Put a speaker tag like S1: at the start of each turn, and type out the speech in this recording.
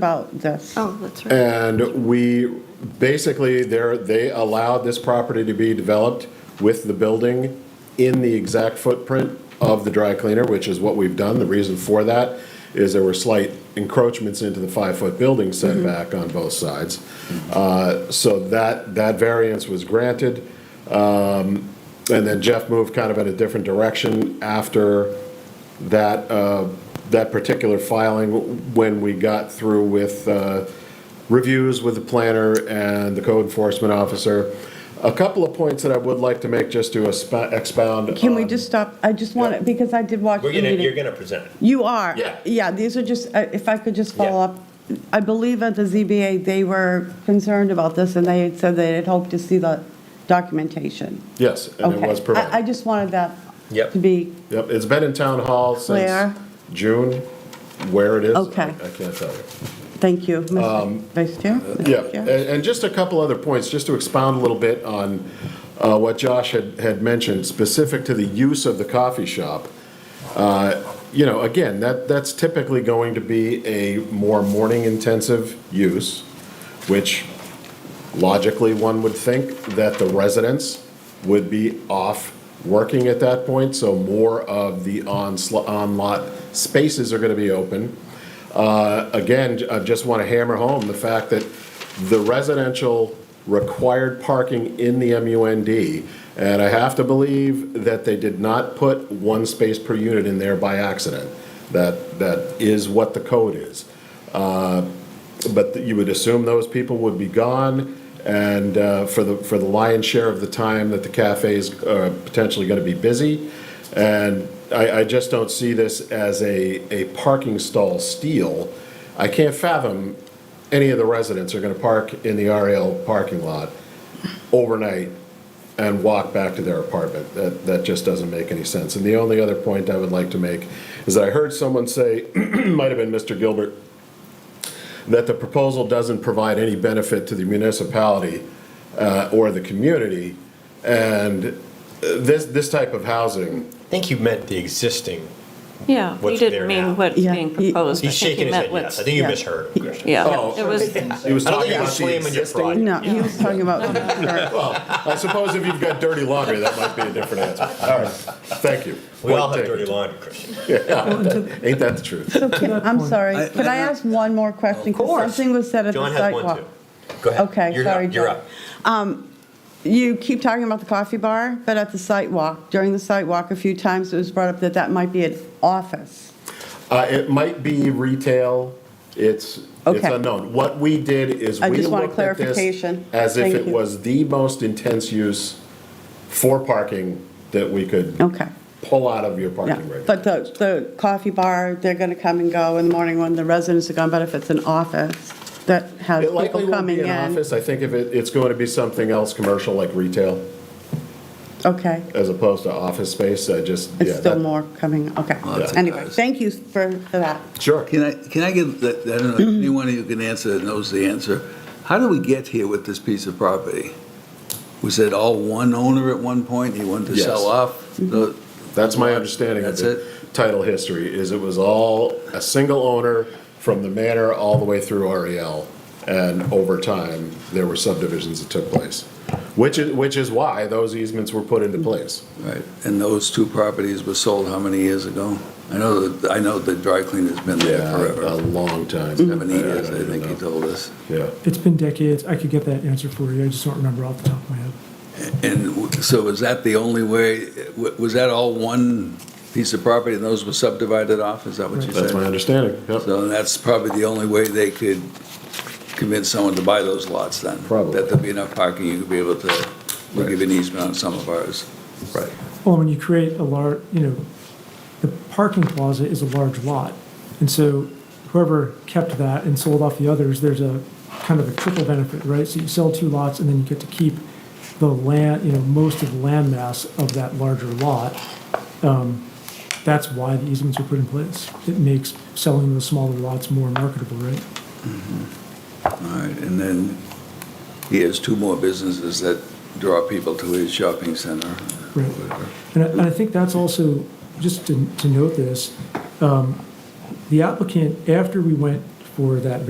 S1: about this.
S2: Oh, that's right.
S3: Uh,
S4: And we, basically, there, they allowed this property to be developed with the building in the exact footprint of the dry cleaner, which is what we've done. The reason for that is there were slight encroachments into the five-foot building setback on both sides. Uh, So that, that variance was granted. Um, And then Jeff moved kind of in a different direction after that, uh, that particular filing when we got through with uh, reviews with the planner and the code enforcement officer. A couple of points that I would like to make just to esp- expound.
S1: Can we
S4: on.
S1: just stop? I just want
S4: Yeah.
S1: to, because I did watch the
S3: Um, We're gonna, you're
S1: meeting.
S3: gonna present it.
S1: You are.
S3: Yeah.
S1: Yeah, these are just, uh, if I could just follow
S3: Yeah.
S1: up. I believe at the ZBA, they were concerned about this, and they had said they had hoped to see the documentation.
S4: Yes, and it
S1: Okay.
S4: was
S1: I I
S4: provided.
S1: just wanted that
S3: Yep.
S1: to be,
S4: Yep, it's been in town hall
S1: Where?
S4: since June, where it is. I-
S1: Okay.
S4: I can't tell you.
S1: thank you,
S3: Um,
S1: Mr. Vice Chair.
S3: uh,
S1: Mr.
S4: Yeah,
S1: Chair.
S4: and, and just a couple other points, just to expound a little bit on uh, what Josh had, had mentioned, specific to the use of the coffee shop. Uh, You know, again, that, that's typically going to be a more morning-intensive use, which logically, one would think that the residents would be off working at that point, so more of the onsl- on-lot spaces are going to be open. Uh, Again, I just want to hammer home the fact that the residential required parking in the MUND, and I have to believe that they did not put one space per unit in there by accident. That, that is what the code is. But you would assume those people would be gone, and uh, for the, for the lion's share of the time that the cafe's uh, potentially going to be busy. And I, I just don't see this as a, a parking stall steal. I can't fathom any of the residents are going to park in the RL parking lot overnight and walk back to their apartment. That, that just doesn't make any sense. And the only other point I would like to make is that I heard someone say, might have been Mr. Gilbert, that the proposal doesn't provide any benefit to the municipality uh, or the community. And uh, this, this type of housing,
S3: I think you meant the existing.
S2: Yeah, you
S3: What's
S2: didn't
S3: there
S2: mean
S3: now?
S2: what's
S1: Yeah.
S2: being
S1: He-
S2: proposed. I
S3: He's
S2: think he
S3: shaking his head
S2: meant
S3: yes.
S2: what's.
S3: I think you
S1: yeah.
S3: misheard him, Christian.
S2: Yeah,
S4: Oh.
S2: it was,
S4: he was
S3: I don't
S4: talking
S3: think you were
S4: about the
S3: slamming your
S4: existing.
S3: pride.
S1: No, he was talking about,
S4: Well, I suppose if you've got dirty laundry, that might be a different answer. All right, thank you.
S3: We all have
S4: Point
S3: dirty
S4: taken.
S3: laundry, Christian.
S4: Ain't that the truth?
S1: I'm sorry, could I ask one more question? Of
S3: course.
S1: Something was said at the
S3: John has one
S1: sidewalk.
S3: too. Go ahead.
S1: Okay,
S3: You're
S1: sorry,
S3: up. You're
S1: John.
S3: up.
S1: You keep talking about the coffee bar, but at the site walk, during the site walk, a few times it was brought up that that might be an office.
S4: Uh, It might be retail, it's, it's
S1: Okay.
S4: unknown. What we did is
S1: I
S4: we
S1: just want a
S4: looked at this
S1: clarification.
S4: as if
S1: Thank
S4: it
S1: you.
S4: was the most intense use for parking that we could
S1: Okay.
S4: pull out of your
S1: Yeah,
S4: parking regulations.
S1: but the, the coffee bar, they're going to come and go in the morning when the residents are gone, but if it's an office that has
S4: It
S1: people
S4: likely won't
S1: coming
S4: be an
S1: in.
S4: office, I think if it, it's going to be something else, commercial like retail,
S1: Okay,
S4: as opposed to office space, I just, yeah.
S1: it's still
S4: that-
S1: more coming, okay.
S4: that's a
S1: Anyway,
S5: nice-
S1: thank you for, for that.
S4: Sure.
S5: Can I, can I give, I don't know,
S4: Mm-hmm.
S5: anyone who can answer that knows the answer. How did we get here with this piece of property? Was it all one owner at one point? He wanted to
S4: Yes. Mm-hmm.
S5: sell off? No,
S4: That's my understanding of
S5: That's
S4: the title history, is it was all a single owner from the manor all the way through REL. And over time, there were subdivisions that took place, which is, which is why those easements were put into place.
S5: Right, and those two properties were sold how many years ago? I know, that I know the dry cleaner's been there
S4: A
S5: forever,
S4: long time.
S5: seven
S4: I- I
S5: years,
S4: don't
S5: I
S4: even
S5: think he
S4: know.
S5: told us.
S4: Yeah.
S6: It's been decades. I could get that answer for you. I just don't remember off the top of my head.
S5: And w- so was that the only way, w- was that all one piece of property and those were subdivided off? Is that what you said?
S4: That's my understanding, yep.
S5: So that's probably the only way they could convince someone to buy those lots then?
S4: Probably.
S5: That there'll be enough parking, you could be able to, we'll give an easement on some of ours.
S4: Right.
S6: Well, when you create a large, you know, the parking plaza is a large lot. And so whoever kept that and sold off the others, there's a kind of a triple benefit, right? So you sell two lots and then you get to keep the land, you know, most of the land mass of that larger lot. Um, That's why the easements are put in place. It makes selling the smaller lots more marketable, right?
S5: All right, and then he has two more businesses that draw people to his shopping center.
S6: Right. And I, and I think that's also, just to, to note this, um, the applicant, after we went for that